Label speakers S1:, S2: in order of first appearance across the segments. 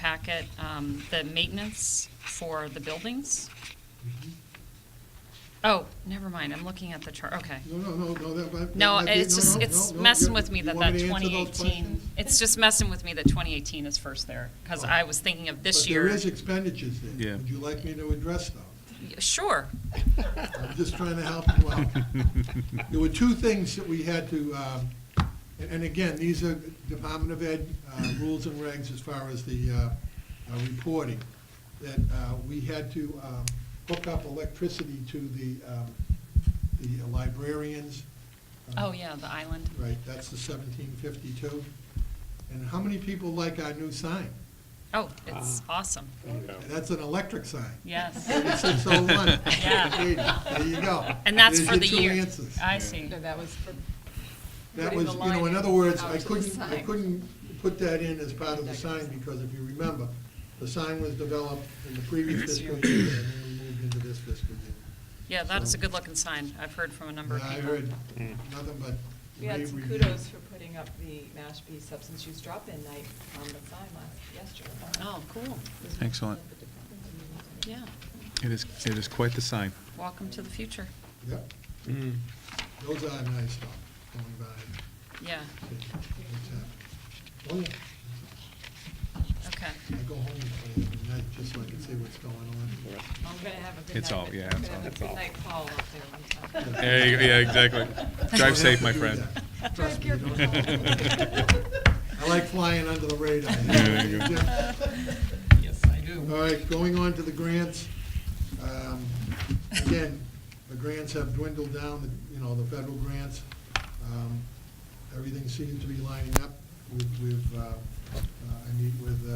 S1: packet, um, the maintenance for the buildings. Oh, never mind, I'm looking at the chart, okay.
S2: No, no, no, no, that, that.
S1: No,
S2: that-
S1: it's
S2: no,
S1: just,
S2: no,
S1: it's
S2: no, no,
S1: messing
S2: you-
S1: with me
S2: you
S1: that
S2: want
S1: that
S2: me to answer those
S1: 2018,
S2: questions? Oh.
S1: it's just messing with me that 2018 is first there, because I was thinking of this
S2: But
S1: year.
S2: there is expenditures there.
S3: Yeah.
S2: Would you like me to address them?
S1: Sure,
S2: Uh-huh. I'm just trying to help you out. There were two things that we had to, um, and and again, these are Department of Ed uh, rules and regs as far as the uh, uh, reporting, that uh, we had to um, hook up electricity to the um, the librarians.
S1: oh, yeah, the island.
S2: Right, that's the 1752. And how many people like our new sign?
S1: Oh, it's
S2: Uh-huh.
S1: awesome,
S2: Oh, That's an electric sign.
S1: yes,
S2: Thirty-six oh one.
S1: Yeah.
S2: There you go.
S1: and that's
S2: There's
S1: for
S2: your
S1: the
S2: two
S1: year.
S2: answers.
S1: I see,
S4: No, that was for.
S2: That
S4: putting
S2: was,
S4: the
S2: you know,
S4: line
S2: in other words,
S4: out
S2: I
S4: to the
S2: couldn't, I
S4: side.
S2: couldn't put that in as part of the sign, because if you remember, the sign was developed in the previous fiscal year, and then we moved into this fiscal year.
S1: yeah, that is a good-looking sign, I've heard from a number of
S2: I
S1: people.
S2: heard nothing but
S4: We had
S2: rave
S4: some
S2: reviews.
S4: kudos for putting up the Mashpee substance use drop-in night on the sign last, yesterday.
S1: Oh, cool,
S4: It was-
S3: Excellent.
S1: yeah,
S3: It is, it is quite the sign.
S1: welcome to the future,
S2: Yep, those are nice stuff, going by.
S1: yeah,
S2: It's, uh, Oh, yeah,
S1: okay.
S2: I go home at the night, just so I can see what's going on.
S4: I'm gonna have a good night.
S3: It's all-
S4: but
S3: yeah,
S4: I'm
S3: it's
S4: gonna
S3: all-
S4: have a
S3: it's all.
S4: good night call up there one time.
S3: There you go, yeah, exactly. Drive safe, my friend.
S2: Trust me,
S4: Drive
S2: don't-
S4: careful.
S2: I like flying under the radar.
S3: there you go.
S2: Yes, I do. All right, going on to the grants. Um, Again, the grants have dwindled down, you know, the federal grants. Um, Everything seems to be lining up with, with, uh, uh, I meet with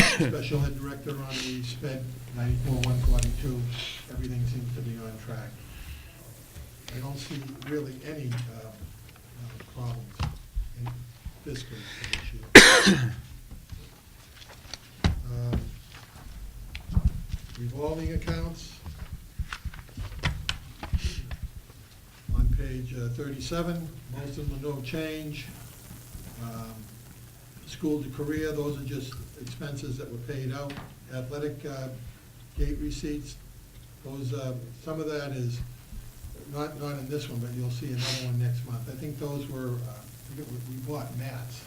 S2: uh, Special Ed Director on the SPED 94142. Everything seems to be on track. I don't see really any uh, uh, problems in fiscal for this year. Um, Revolving accounts. On page uh, 37, most of them are no change. Um, School to career, those are just expenses that were paid out. Athletic uh, gate receipts, those, uh, some of that is, not, not in this one, but you'll see another one next month. I think those were, uh, I forget what- we bought mats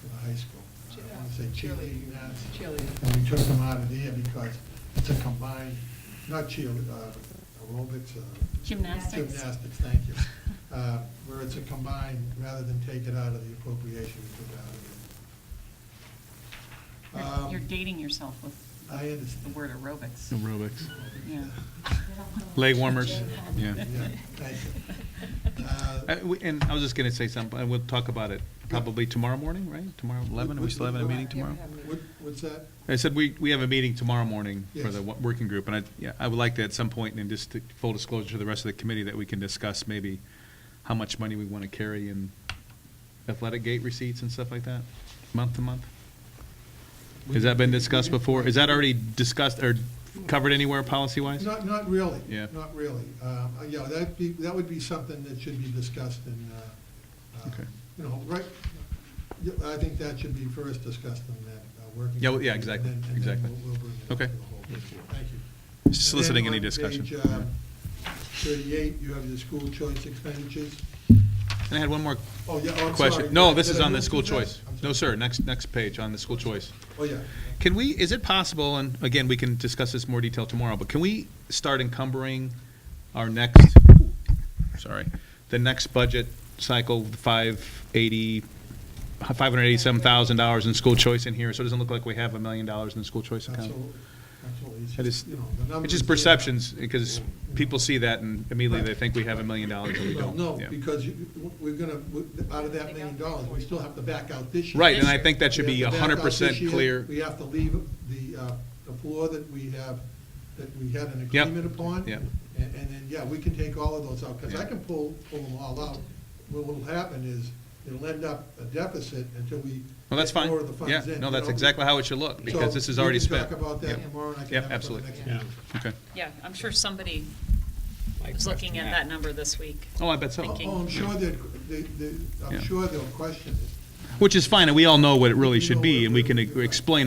S2: for the high school. Uh, I want to say cheerleading mats.
S4: Cheerleading.
S2: And we took them out of there because it's a combined, not cheer, uh, aerobics, uh.
S1: Gymnastics.
S2: Gymnastics, thank you. Uh, Where it's a combined, rather than take it out of the appropriation, we took it out of
S1: You're-
S2: there. Um,
S1: You're dating yourself with
S2: I understand.
S1: the word aerobics,
S3: Aerobics.
S1: yeah.
S3: Leg warmers, yeah.
S2: Yeah, thank you. Uh,
S3: Uh, we- And I was just going to say something, and we'll talk about it probably tomorrow morning, right? Tomorrow, 11, are we still having a meeting tomorrow?
S2: What, what's that?
S3: I said, we, we have a meeting tomorrow morning for the
S2: Yes.
S3: wo- working group, and I, yeah, I would like to at some point, and just to- full disclosure to the rest of the committee, that we can discuss maybe how much money we want to carry in athletic gate receipts and stuff like that, month to month? Has that been discussed before? Is that already discussed or covered anywhere policy-wise?
S2: Not, not really.
S3: Yeah.
S2: Not really. Um, uh, Yeah, that'd be, that would be something that should be discussed in, uh, uh,
S3: Okay.
S2: you know, right, yeah, I think that should be first discussed in that uh, working.
S3: Yeah, well, yeah,
S2: group, and
S3: exactly,
S2: then-
S3: exactly.
S2: And then we'll- we'll bring it up
S3: Okay.
S2: to the whole group. Thank you.
S3: Soliciting any
S2: And then on
S3: discussion.
S2: page, um, Thirty-eight, you have the school choice expenditures.
S3: And I had one more
S2: Oh, yeah, oh, I'm sorry.
S3: question. No,
S2: Did-
S3: this
S2: did
S3: is
S2: I
S3: on the
S2: move
S3: school
S2: to that?
S3: choice.
S2: I'm sorry.
S3: No, sir, next, next page on the school choice.
S2: Oh, yeah.
S3: Can we, is it possible, and again, we can discuss this in more detail tomorrow, but can we start encumbering our next, sorry, the next budget cycle, the 580, $587,000 in school choice in here, so it doesn't look like we have a million dollars in the school choice account?
S2: Absolutely, absolutely. It's
S3: That
S2: just,
S3: is,
S2: you know, the numbers. Mm-hmm.
S3: it's just
S2: there.
S3: perceptions, because people see that and immediately they think we have a million dollars and we
S2: Well,
S3: don't.
S2: no,
S3: Yeah.
S2: because you- we're gonna, out of that million dollars, we still have to back out this year.
S3: Right, and I think that should
S2: We
S3: be
S2: have to back out
S3: 100%
S2: this year.
S3: clear.
S2: We have to leave the, uh, the floor that we have, that we had an
S3: Yep.
S2: agreement upon.
S3: Yep.
S2: And, and then, yeah, we can take all of those out, because I
S3: Yeah.
S2: can pull, pull them all out. What will happen is, it'll end up a deficit until we.
S3: Well, that's
S2: get
S3: fine.
S2: more of the funds
S3: Yeah,
S2: in,
S3: no,
S2: you
S3: that's
S2: know?
S3: exactly how it should look, because
S2: So
S3: this is already
S2: We
S3: spent.
S2: can talk about that
S3: Yep.
S2: tomorrow, and I can
S3: Yep,
S2: have it for the
S3: absolutely.
S2: next
S5: Yeah.
S2: meeting.
S3: Okay.
S1: Yeah, I'm sure somebody was looking at that number this week.
S3: Oh, I bet so.
S2: Oh,
S1: Thinking.
S2: Oh, I'm sure that, they, they,
S3: Yeah.
S2: I'm sure they'll question it.
S3: Which is fine, and we all know what it really
S2: You
S3: should
S2: know
S3: be,
S2: what
S3: and we
S2: it
S3: can
S2: really-
S3: explain it.